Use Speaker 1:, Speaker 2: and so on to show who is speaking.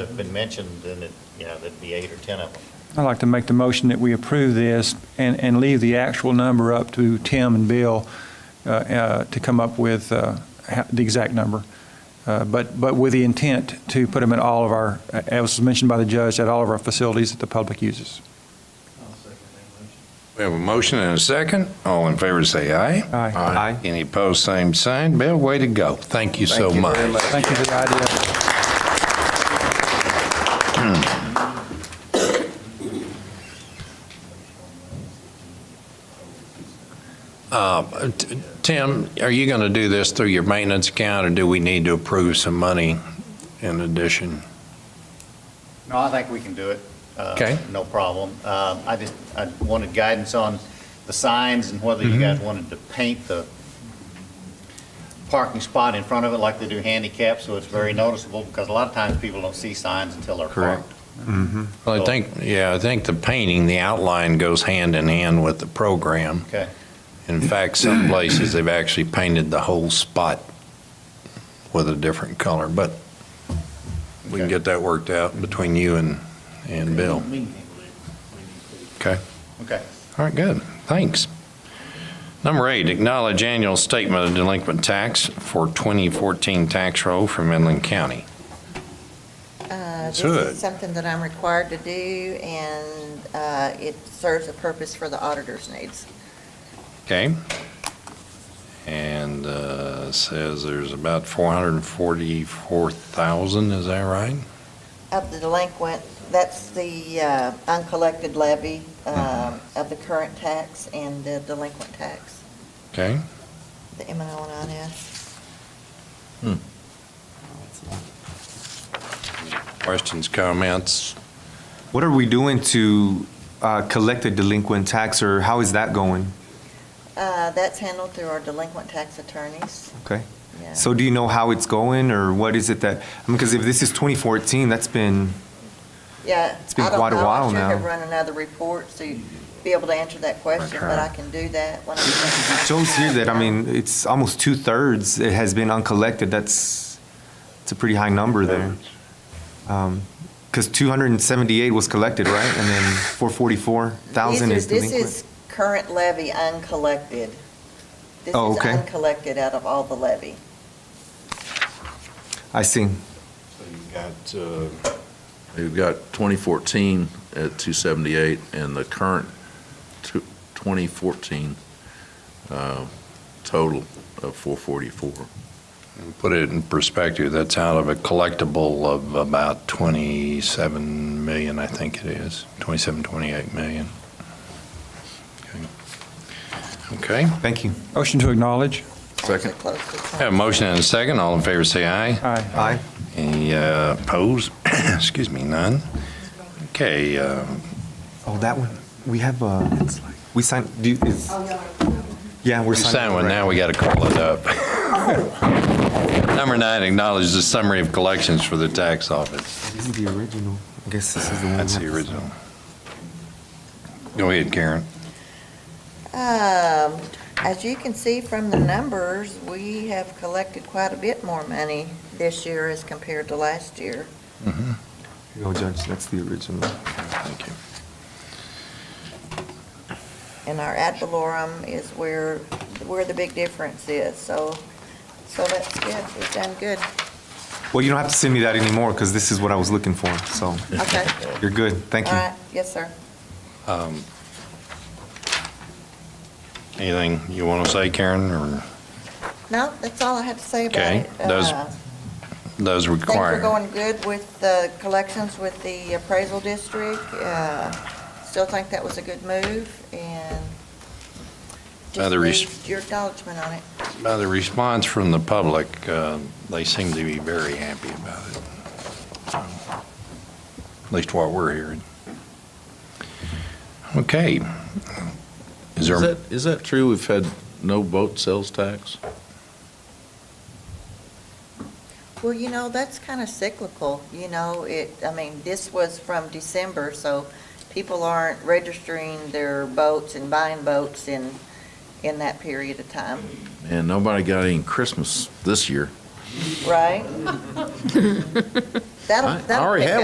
Speaker 1: that have been mentioned, then it, you know, there'd be eight or 10 of them.
Speaker 2: I'd like to make the motion that we approve this and, and leave the actual number up to Tim and Bill uh, uh, to come up with uh, ha- the exact number, Uh, but, but with the intent to put them at all of our, uh, as was mentioned by the judge, at all of our facilities that the public uses.
Speaker 3: I'll second that motion.
Speaker 4: We have a motion and a second. All in favor, say aye.
Speaker 2: Aye.
Speaker 5: Aye.
Speaker 4: Any opposed, same sign. Bill, way to go. Thank you so much.
Speaker 2: Thank you for the idea.
Speaker 4: Uh, t- Tim, are you going to do this through your maintenance account, or do we need to approve some money in addition?
Speaker 1: No, I think we can do it. Uh,
Speaker 4: Okay.
Speaker 1: No problem. Um, I just, I wanted guidance on the signs and whether you
Speaker 4: Mm-hmm.
Speaker 1: guys wanted to paint the parking spot in front of it like they do handicap, so it's
Speaker 3: Mm-hmm.
Speaker 1: very noticeable, because a lot of times people don't see signs until they're
Speaker 4: Correct.
Speaker 1: parked.
Speaker 4: Well, I think, yeah, I think the painting, the outline goes hand in hand with the program.
Speaker 1: Okay.
Speaker 4: In fact, some places, they've actually painted the whole spot with a different color, but we can
Speaker 1: Okay.
Speaker 4: get that worked out between you and, and Bill. Okay.
Speaker 1: Okay.
Speaker 4: All right, good. Thanks. Number eight, acknowledge annual statement of delinquent tax for 2014 tax roll from Inland County.
Speaker 6: Uh, This
Speaker 4: Should.
Speaker 6: is something that I'm required to do, and uh, it serves a purpose for the auditor's needs.
Speaker 4: Okay? And uh, says there's about 444,000, is that right?
Speaker 6: Of the delinquent, that's the uh, uncollected levy
Speaker 5: Mm-hmm.
Speaker 6: um, of the current tax and the delinquent tax,
Speaker 4: Okay?
Speaker 6: the M and O and INS.
Speaker 4: Questions, comments?
Speaker 5: What are we doing to uh, collect the delinquent tax, or how is that going?
Speaker 6: Uh, That's handled through our delinquent tax attorneys.
Speaker 5: Okay.
Speaker 6: Yeah.
Speaker 5: So do you know how it's going, or what is it that, I mean, because if this is 2014, that's been,
Speaker 6: Yeah.
Speaker 5: It's been
Speaker 6: I don't
Speaker 5: quite a
Speaker 6: know.
Speaker 5: while
Speaker 6: I should have
Speaker 5: now.
Speaker 6: run another report to be able to answer that question, but
Speaker 4: Okay.
Speaker 6: I can do that when I'm.
Speaker 5: shows here that, I mean, it's almost two-thirds it has been uncollected. That's, it's a pretty high number there. Um, Because 278 was collected, right? And then 444,000
Speaker 6: These
Speaker 5: is
Speaker 6: are-
Speaker 5: delinquent.
Speaker 6: This is current levy uncollected. This
Speaker 5: Oh,
Speaker 6: is
Speaker 5: okay.
Speaker 6: uncollected out of all the levy.
Speaker 5: I see.
Speaker 4: So you've got, uh,
Speaker 7: We've got 2014 at 278 and the current tw- 2014 uh, total of 444.
Speaker 4: Put it in perspective, that's out of a collectible of about 27 million, I think it is, 27, 28 million. Okay, Okay.
Speaker 5: Thank you.
Speaker 2: Motion to acknowledge.
Speaker 7: Second.
Speaker 6: Close to the
Speaker 4: have a motion and a second, all in favor say aye.
Speaker 2: Aye.
Speaker 5: Aye.
Speaker 4: Any uh, opposed? Excuse me, none. Okay, uh,
Speaker 5: Oh, that one, we have, uh, we signed, do, is,
Speaker 6: Oh,
Speaker 5: yeah, we're
Speaker 4: we
Speaker 5: signing.
Speaker 4: signed one, now we got to call it up. Number nine, acknowledge the summary of collections for the tax office.
Speaker 5: This is the original, I guess this is the one.
Speaker 4: That's
Speaker 5: we
Speaker 4: the
Speaker 5: have to sign.
Speaker 4: original. Go ahead, Karen.
Speaker 6: Um, As you can see from the numbers, we have collected quite a bit more money this year as compared to last year.
Speaker 5: Here you go, Judge, that's the original.
Speaker 4: Thank you.
Speaker 6: And our ad valorem is where, where the big difference is. So, so that's good. We've done good.
Speaker 5: Well, you don't have to send me that anymore, because this is what I was looking for, so
Speaker 6: Okay.
Speaker 5: you're good, thank
Speaker 6: All
Speaker 5: you.
Speaker 6: right. Yes, sir.
Speaker 4: Um, Anything you want to say, Karen, or
Speaker 6: No, that's all I have to say about
Speaker 4: Okay.
Speaker 6: it.
Speaker 4: Those
Speaker 6: Uh,
Speaker 4: those
Speaker 6: Things are
Speaker 4: require?
Speaker 6: going good with the collections with the appraisal district. Uh, Still think that was a good move, and just
Speaker 4: Other res-
Speaker 6: need your acknowledgement on it.
Speaker 4: By the response from the public, uh, they seem to be very happy about it. At least what we're hearing. Okay. Is
Speaker 7: Is
Speaker 4: there,
Speaker 7: that, is that true? We've had no boat sales tax?
Speaker 6: Well, you know, that's kind of cyclical, you know, it, I mean, this was from December, so people aren't registering their boats and buying boats in, in that period of time,
Speaker 7: And nobody got any Christmas this year.
Speaker 6: right? That'll,
Speaker 7: I- I
Speaker 6: that'll
Speaker 7: already
Speaker 6: pick
Speaker 7: have